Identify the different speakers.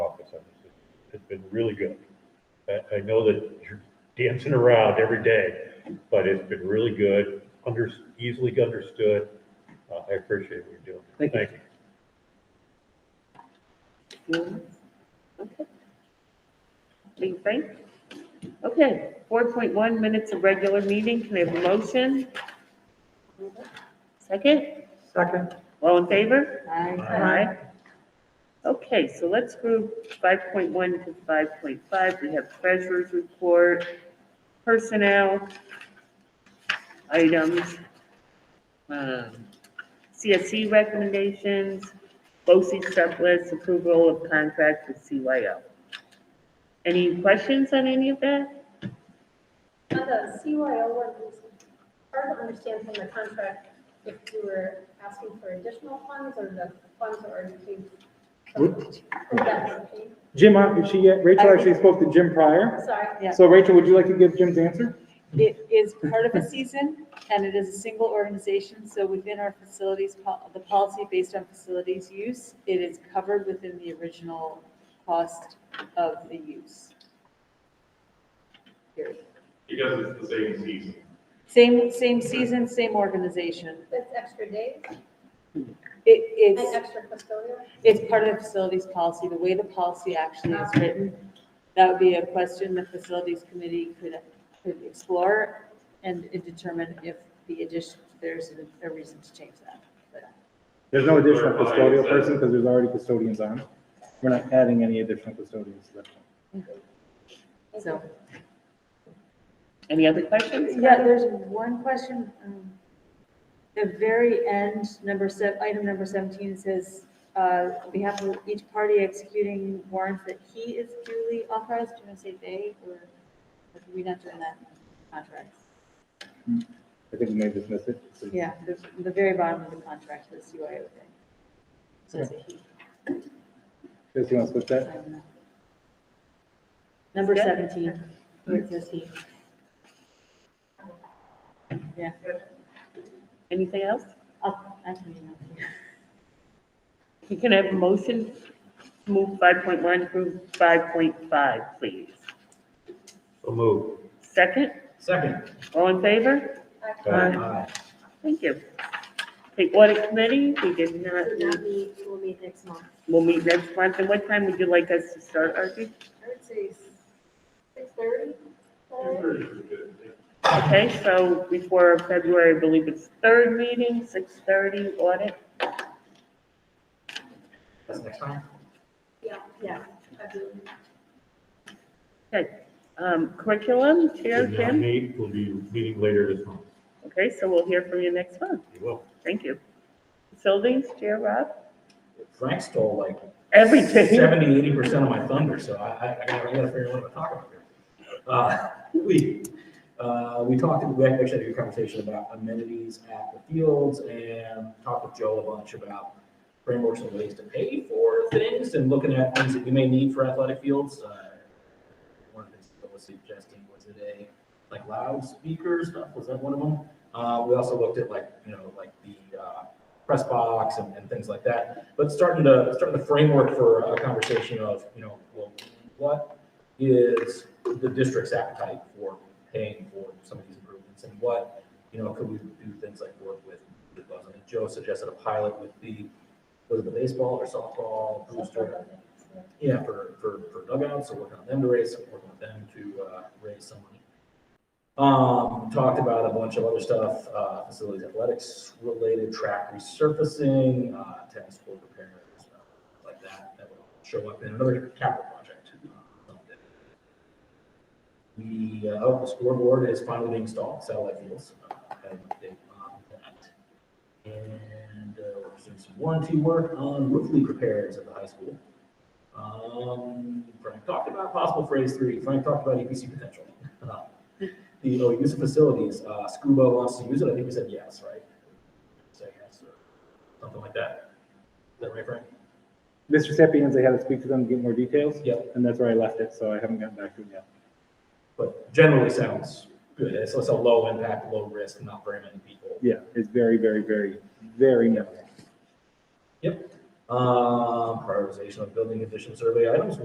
Speaker 1: has been really good. I, I know that you're dancing around every day, but it's been really good, under, easily understood. Uh, I appreciate what you're doing.
Speaker 2: Thank you.
Speaker 3: Okay. Being frank. Okay, four point one minutes of regular meeting. Can I have a motion? Second?
Speaker 4: Second.
Speaker 3: All in favor?
Speaker 4: Aye.
Speaker 3: Aye. Okay, so let's group five point one to five point five. We have treasurer's report, personnel items, um, CSC recommendations, BOSI sublist, approval of contract with CYO. Any questions on any of that?
Speaker 5: On the CYO one, it's hard to understand from the contract if you were asking for additional funds or the funds are already paid. Or that's paid.
Speaker 4: Jim, uh, she, Rachel actually spoke to Jim prior.
Speaker 5: Sorry,
Speaker 6: Yeah.
Speaker 4: So Rachel, would you like to give Jim's answer?
Speaker 6: It is part of a season, and it is a single organization, so within our facilities, pol- the policy based on facilities use, it is covered within the original cost of the use. Period.
Speaker 7: Because it's the same season.
Speaker 6: Same, same season, same organization.
Speaker 5: that's extra days
Speaker 6: It,
Speaker 5: and
Speaker 6: it's,
Speaker 5: extra custodial.
Speaker 6: it's part of the facilities policy, the way the policy actually is written. That would be a question the facilities committee could, could explore and determine if the addition, there's a- a reason to change that. But-
Speaker 4: There's no additional
Speaker 7: Clarify,
Speaker 4: custodial
Speaker 7: is that-
Speaker 4: person because there's already custodians on. We're not adding any additional custodians to that.
Speaker 6: So,
Speaker 3: Any other questions?
Speaker 6: yeah, there's one question. um, The very end, number seven, item number 17 says, uh, on behalf of each party executing warrants that he is duly authorized, do you want to say they, or or do we not doing that in contracts?
Speaker 4: I think we may dismiss it.
Speaker 6: Yeah, the, the very bottom of the contract, the CYO thing. Says a he,
Speaker 4: Does he want to switch
Speaker 6: I
Speaker 4: that?
Speaker 6: don't know. Number
Speaker 3: Yeah.
Speaker 6: 17, where it says he. Yeah,
Speaker 3: Anything else?
Speaker 6: I'll, I can email you.
Speaker 3: You can have a motion, to move five point one through five point five, please.
Speaker 1: So move.
Speaker 3: Second,
Speaker 8: Second.
Speaker 3: all in favor?
Speaker 1: Aye.
Speaker 3: Thank you. The audit committee, we did not,
Speaker 5: So that means we'll meet next month.
Speaker 3: we'll meet next month, and what time would you like us to start, Archie?
Speaker 5: I would say six thirty.
Speaker 3: Okay, so before February, I believe it's third meeting, six thirty audit,
Speaker 8: That's next time.
Speaker 5: Yeah, yeah. I do.
Speaker 3: um, curriculum, Chair
Speaker 1: Did not
Speaker 3: Jim.
Speaker 1: meet, we'll be meeting later this month.
Speaker 3: Okay, so we'll hear from you next month,
Speaker 1: You will.
Speaker 3: thank you. Facilities, Chair Rob,
Speaker 8: Frank stole like
Speaker 3: everything,
Speaker 8: seventy, eighty percent of my thunder, so I, I, I gotta I gotta figure out what I'm talking about here. Uh, we, uh, we talked, we actually had a good conversation about amenities at the fields and talked with Joe a bunch about frameworks and ways to pay for things and looking at things that we may need for athletic fields. Uh, One of the things that was suggesting was it a, like loudspeaker stuff, was that one of them? Uh, we also looked at like, you know, like the, uh, press box and, and things like that but starting to, starting the framework for a conversation of, you know, well, what is the district's appetite for paying for some of these improvements? And what, you know, could we do things like work with, with Buzz? I think Joe suggested a pilot with the, was it the baseball or softball booster? Yeah, for, for, for dugouts, so working on them to raise, some- working with them to, uh, raise some money. Um, talked about a bunch of other stuff, uh, facilities athletics related, track resurfacing, uh, tennis court repairs, uh, like that, that would show up in another capital project. uh, someday. We, uh, oh, the scoreboard is finally being installed, satellite fields, uh, had an update on that. And, uh, we're doing some warranty work on roof leak repairs at the high school. Um, Frank talked about possible phrase three. Frank talked about EPC potential. Uh, The, oh, use of facilities, uh, SCUBA wants to use it. I think we said yes, right? Say yes or something like that. Is that right, Frank?
Speaker 4: Mr. Sapienza had to speak to them to get more details.
Speaker 8: Yep.
Speaker 4: And that's where I left it, so I haven't gotten back to it yet.
Speaker 8: But generally sounds good. It's, it's a low impact, low risk, not very many people.
Speaker 4: Yeah, it's very, very, very, very minimal.
Speaker 8: Um, prioritization of building addition survey items.